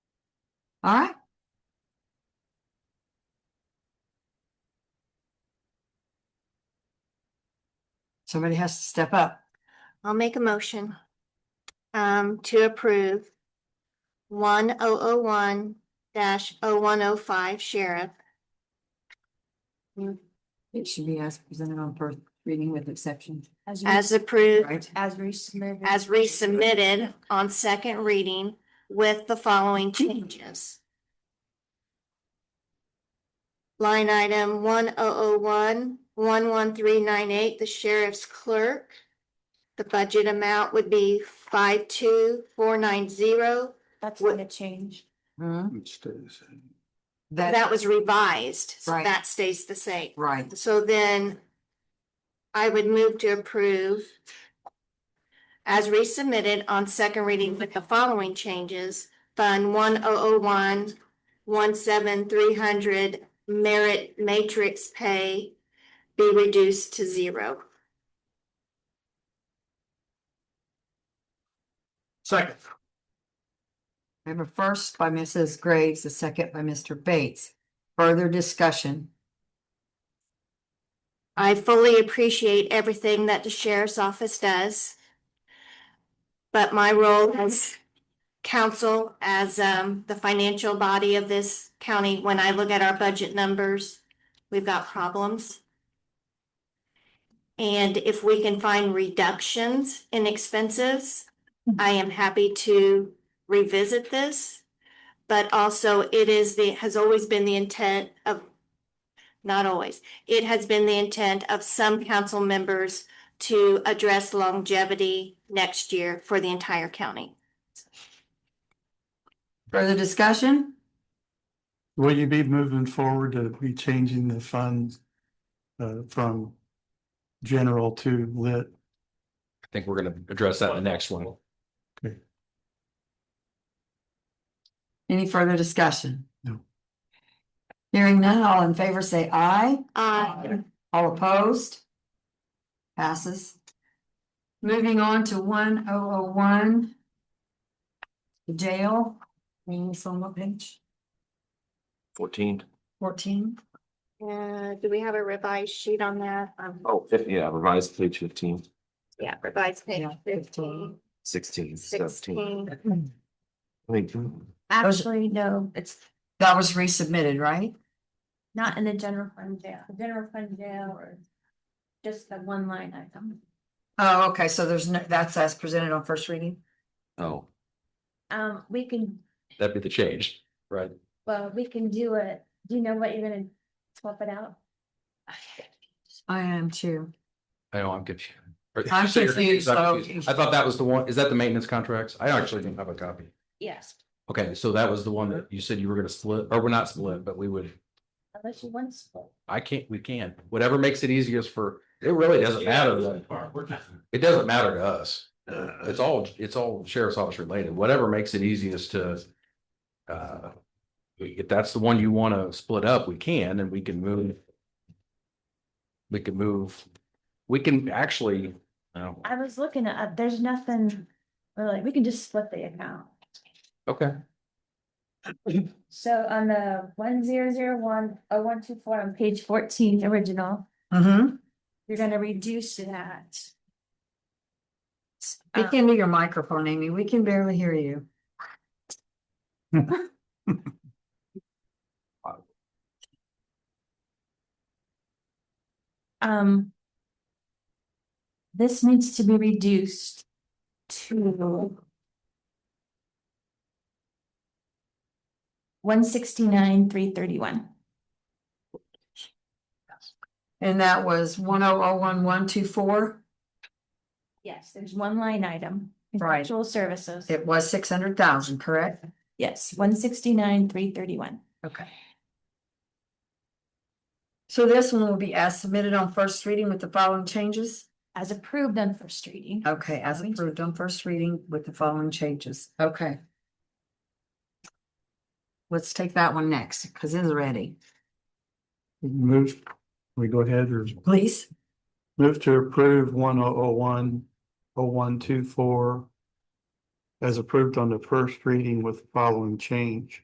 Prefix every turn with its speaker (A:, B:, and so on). A: All right. Somebody has to step up.
B: I'll make a motion um, to approve one oh oh one dash oh one oh five sheriff.
A: It should be as presented on first reading with exception,
B: As approved,
A: right?
C: As resubmitted.
B: as resubmitted on second reading with the following changes. Line item one oh oh one, one one three nine eight, the sheriff's clerk. The budget amount would be five two four nine zero.
C: That's
B: what-
C: gonna change.
A: Hmm?
D: It stays.
A: That,
B: That was revised, so
A: Right.
B: that stays the same.
A: right,
B: So then I would move to approve as resubmitted on second reading with the following changes. Fund one oh oh one, one seven three hundred merit matrix pay be reduced to zero.
D: Second.
A: we have a first by Mrs. Graves, a second by Mr. Bates. Further discussion,
B: I fully appreciate everything that the sheriff's office does. But my role as council, as um the financial body of this county, when I look at our budget numbers, we've got problems. And if we can find reductions in expenses, I am happy to revisit this. But also it is the, has always been the intent of, not always, it has been the intent of some council members to address longevity next year for the entire county.
A: further discussion?
D: Will you be moving forward to be changing the funds uh, from general to lit?
E: I think we're gonna address that in the next one.
A: Any further discussion?
D: No.
A: Hearing none, all in favor say aye.
B: Uh,
A: All opposed? Passes. Moving on to one oh oh one. Jail, meaning on what page?
F: Fourteen.
A: Fourteen?
B: uh, do we have a revised sheet on that? Um,
F: Oh, fif- yeah, revised page fifteen,
B: yeah, revised page
A: Yeah,
B: 15,
F: sixteen,
B: 16.
F: seventeen. I mean,
C: Actually, no, it's
A: That was resubmitted, right?
C: not in the general fund jail, The general fund jail or just the one line item.
A: Oh, okay, so there's no, that's as presented on first reading?
E: Oh,
C: Um, we can,
E: that'd be the change, right?
C: well, we can do it. Do you know what you're gonna swap it out?
A: I am too.
E: I know, I'm confused.
A: I'm
E: So you're
A: confused,
E: I'm
A: so-
E: confused. I thought that was the one, is that the maintenance contracts? I actually don't have a copy.
C: Yes,
E: Okay, so that was the one that you said you were gonna split, or we're not split, but we would,
C: unless you want to split.
E: I can't, we can, whatever makes it easiest for, it really doesn't matter. Uh. to- It doesn't matter to us. It's all, it's all sheriff's office related, whatever makes it easiest to. Uh, if that's the one you wanna split up, we can, and we can move. We can move, we can actually, oh,
C: I was looking at, there's nothing, we're like, we can just split the account.
E: okay,
C: So on the one zero zero one oh one two four on page fourteen, original,
A: Mm-hmm.
C: you're gonna reduce that.
A: Speak into your microphone, Amy. We can barely hear you.
C: Um. This needs to be reduced to. One sixty-nine, three thirty-one.
A: And that was one oh oh one one two four.
C: Yes, there's one line item.
A: Right.
C: Contractual services.
A: It was six hundred thousand, correct?
C: Yes, one sixty-nine, three thirty-one.
A: Okay. So this one will be as submitted on first reading with the following changes?
C: As approved on first reading.
A: Okay, as approved on first reading with the following changes. Okay. Let's take that one next, because it's ready.
D: Move, we go ahead or
A: Please.
D: move to approve one oh oh one, oh one two four as approved on the first reading with following change.